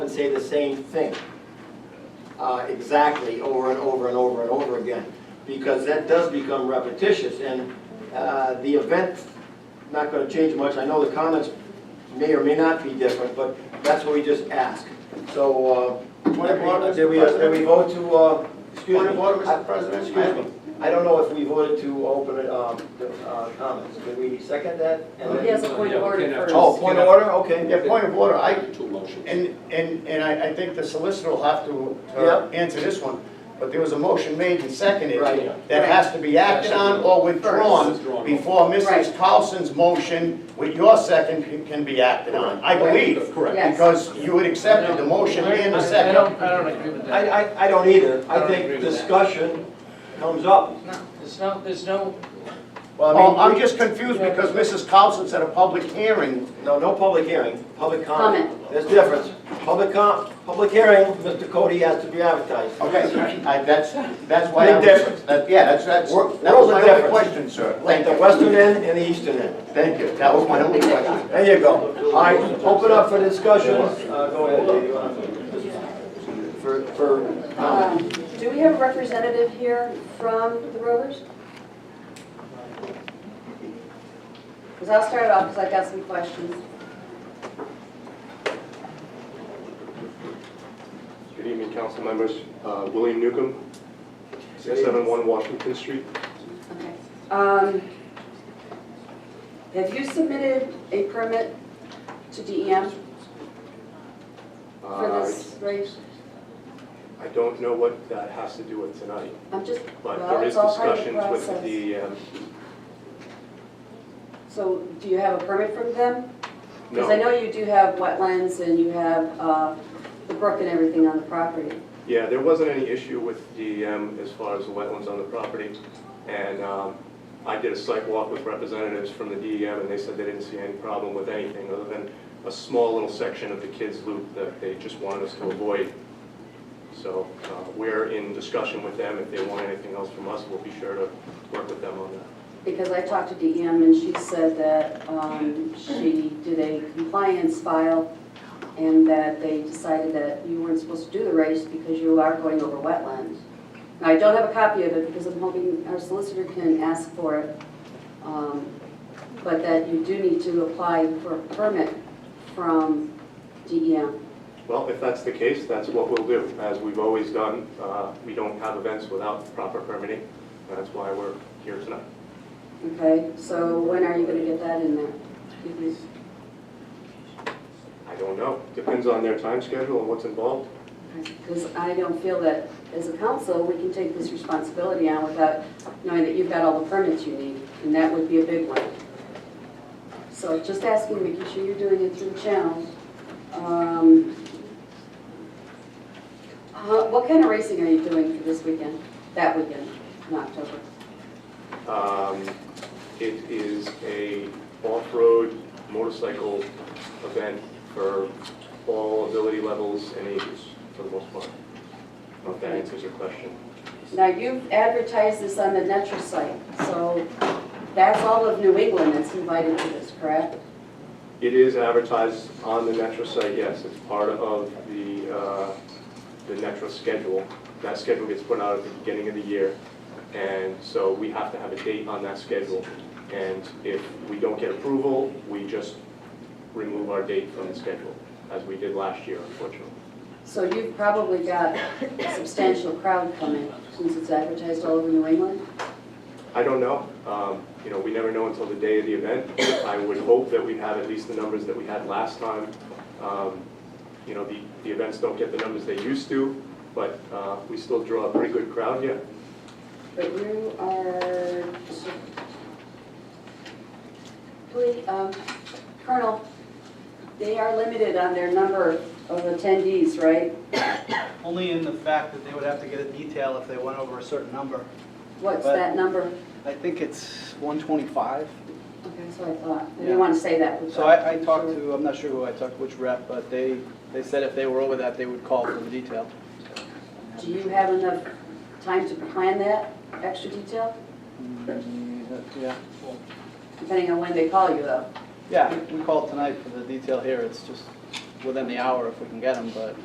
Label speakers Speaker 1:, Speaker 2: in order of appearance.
Speaker 1: say the same thing uh, exactly over and over and over and over again, because that does become repetitious, and uh, the event's not gonna change much. I know the comments may or may not be different, but that's what we just ask. So, uh,
Speaker 2: Point of order, Mr.
Speaker 1: did we, did we vote to, uh, excuse me?
Speaker 2: Point of order, Mr.
Speaker 1: I-
Speaker 2: President.
Speaker 1: Excuse me. I don't know if we voted to open um, the uh, comments. Did we second that? And then-
Speaker 3: He has a point of order first.
Speaker 1: Oh, point of order, okay.
Speaker 2: Yeah, point of order, I,
Speaker 4: Two motions.
Speaker 2: and, and, and I, I think the solicitor will have to,
Speaker 1: Yeah.
Speaker 2: to answer this one, but there was a motion made and seconded
Speaker 1: Right.
Speaker 2: that has to be acted on or withdrawn
Speaker 4: Withdrawn.
Speaker 2: before Mrs.
Speaker 3: Right.
Speaker 2: Carlson's motion with your second can- can be acted on, I believe.
Speaker 4: Correct.
Speaker 3: Yes.
Speaker 2: Because you had accepted the motion and the
Speaker 5: I- I
Speaker 2: second.
Speaker 5: don't, I don't agree with
Speaker 1: I,
Speaker 5: that.
Speaker 1: I, I don't either. I
Speaker 5: don't agree
Speaker 1: think
Speaker 5: with that.
Speaker 1: discussion comes up.
Speaker 5: No, There's no, there's no,
Speaker 1: Well, I
Speaker 2: Oh,
Speaker 1: mean,
Speaker 2: I'm
Speaker 1: we-
Speaker 2: just confused because Mrs. Carlson said a public hearing.
Speaker 1: No, no public hearing, public comment.
Speaker 3: Comment.
Speaker 1: There's difference. Public com, public hearing, Mr. Cody has to be advertised.
Speaker 2: Okay, I, that's, that's why.
Speaker 1: Big
Speaker 2: I was-
Speaker 1: difference.
Speaker 2: that- Yeah, that's, that's,
Speaker 1: World-
Speaker 2: that was
Speaker 1: world of
Speaker 2: my only
Speaker 1: difference.
Speaker 2: question, sir.
Speaker 1: Like
Speaker 2: Thank
Speaker 1: the
Speaker 2: you.
Speaker 1: western end and the eastern end.
Speaker 2: Thank you, that was my only question.
Speaker 1: There you go. All right, open up for discussion. Uh, go ahead, Dave, you wanna- For, for
Speaker 3: Um,
Speaker 1: comment.
Speaker 3: Do we have a representative here from the Rovers? Because I'll start off because I've got some questions.
Speaker 6: Good evening, council members. Uh, William Newcomb, 671 Washington Street.
Speaker 3: Okay. Um, Have you submitted a permit to DEM for
Speaker 6: Uh,
Speaker 3: this race?
Speaker 6: I don't know what that has to do with tonight,
Speaker 3: I'm just,
Speaker 6: but
Speaker 3: well,
Speaker 6: there is
Speaker 3: it's all part of the
Speaker 6: discussions with
Speaker 3: process.
Speaker 6: the, um,
Speaker 3: So do you have a permit from them? Because I
Speaker 6: no,
Speaker 3: know you do have wetlands and you have uh, the brook and everything on the property.
Speaker 6: yeah, there wasn't any issue with DEM as far as the wetlands on the property. And um, I did a site walk with representatives from the DEM, and they said they didn't see any problem with anything other than a small little section of the kids' loop that they just wanted us to avoid. So uh, we're in discussion with them. If they want anything else from us, we'll be sure to work with them on that.
Speaker 3: Because I talked to DEM and she said that um, she did a compliance file and that they decided that you weren't supposed to do the race because you are going over wetlands. Now, I don't have a copy of it because I'm hoping our solicitor can ask for it. um, But that you do need to apply for a permit from DEM.
Speaker 6: Well, if that's the case, that's what we'll do. As we've always done, uh, we don't have events without proper permitting. and That's why we're here tonight.
Speaker 3: Okay, so when are you gonna get that in there? Excuse me.
Speaker 6: I don't know. Depends on their time schedule and what's involved.
Speaker 3: Because I don't feel that, as a council, we can take this responsibility on without knowing that you've got all the permits you need, and that would be a big one. So just asking, making sure you're doing it through channels. Um, how- What kind of racing are you doing for this weekend, that weekend in October?
Speaker 6: Um, It is a off-road motorcycle event for all ability levels and ages, for the most part. I don't know if that answers your question.
Speaker 3: Now, you've advertised this on the Netra site, so that's all of New England that's invited to this, correct?
Speaker 6: It is advertised on the Metro site, yes, it's part of the, uh, the Metro schedule. That schedule gets put out at the beginning of the year, and so we have to have a date on that schedule. And if we don't get approval, we just remove our date from the schedule, as we did last year, unfortunately.
Speaker 3: So you've probably got a substantial crowd coming, since it's advertised all over New England?
Speaker 6: I don't know, um, you know, we never know until the day of the event. I would hope that we'd have at least the numbers that we had last time. Um, You know, the, the events don't get the numbers they used to, but uh, we still draw a pretty good crowd, yeah.
Speaker 3: But you are... Please, um, Colonel, they are limited on their number of attendees, right?
Speaker 7: Only in the fact that they would have to get a detail if they went over a certain number.
Speaker 3: What's that number?
Speaker 7: I think it's 125.
Speaker 3: Okay, so I thought, I didn't want to say that.
Speaker 7: So I, I talked to, I'm not sure who I talked, to, which rep, but they, they said if they were over that, they would call for the detail.
Speaker 3: Do you have enough time to plan that extra detail?
Speaker 7: Mm, Yeah,
Speaker 3: Depending on when they call you, though.
Speaker 7: yeah, we called tonight for the detail here, it's just within the hour if we can get them, but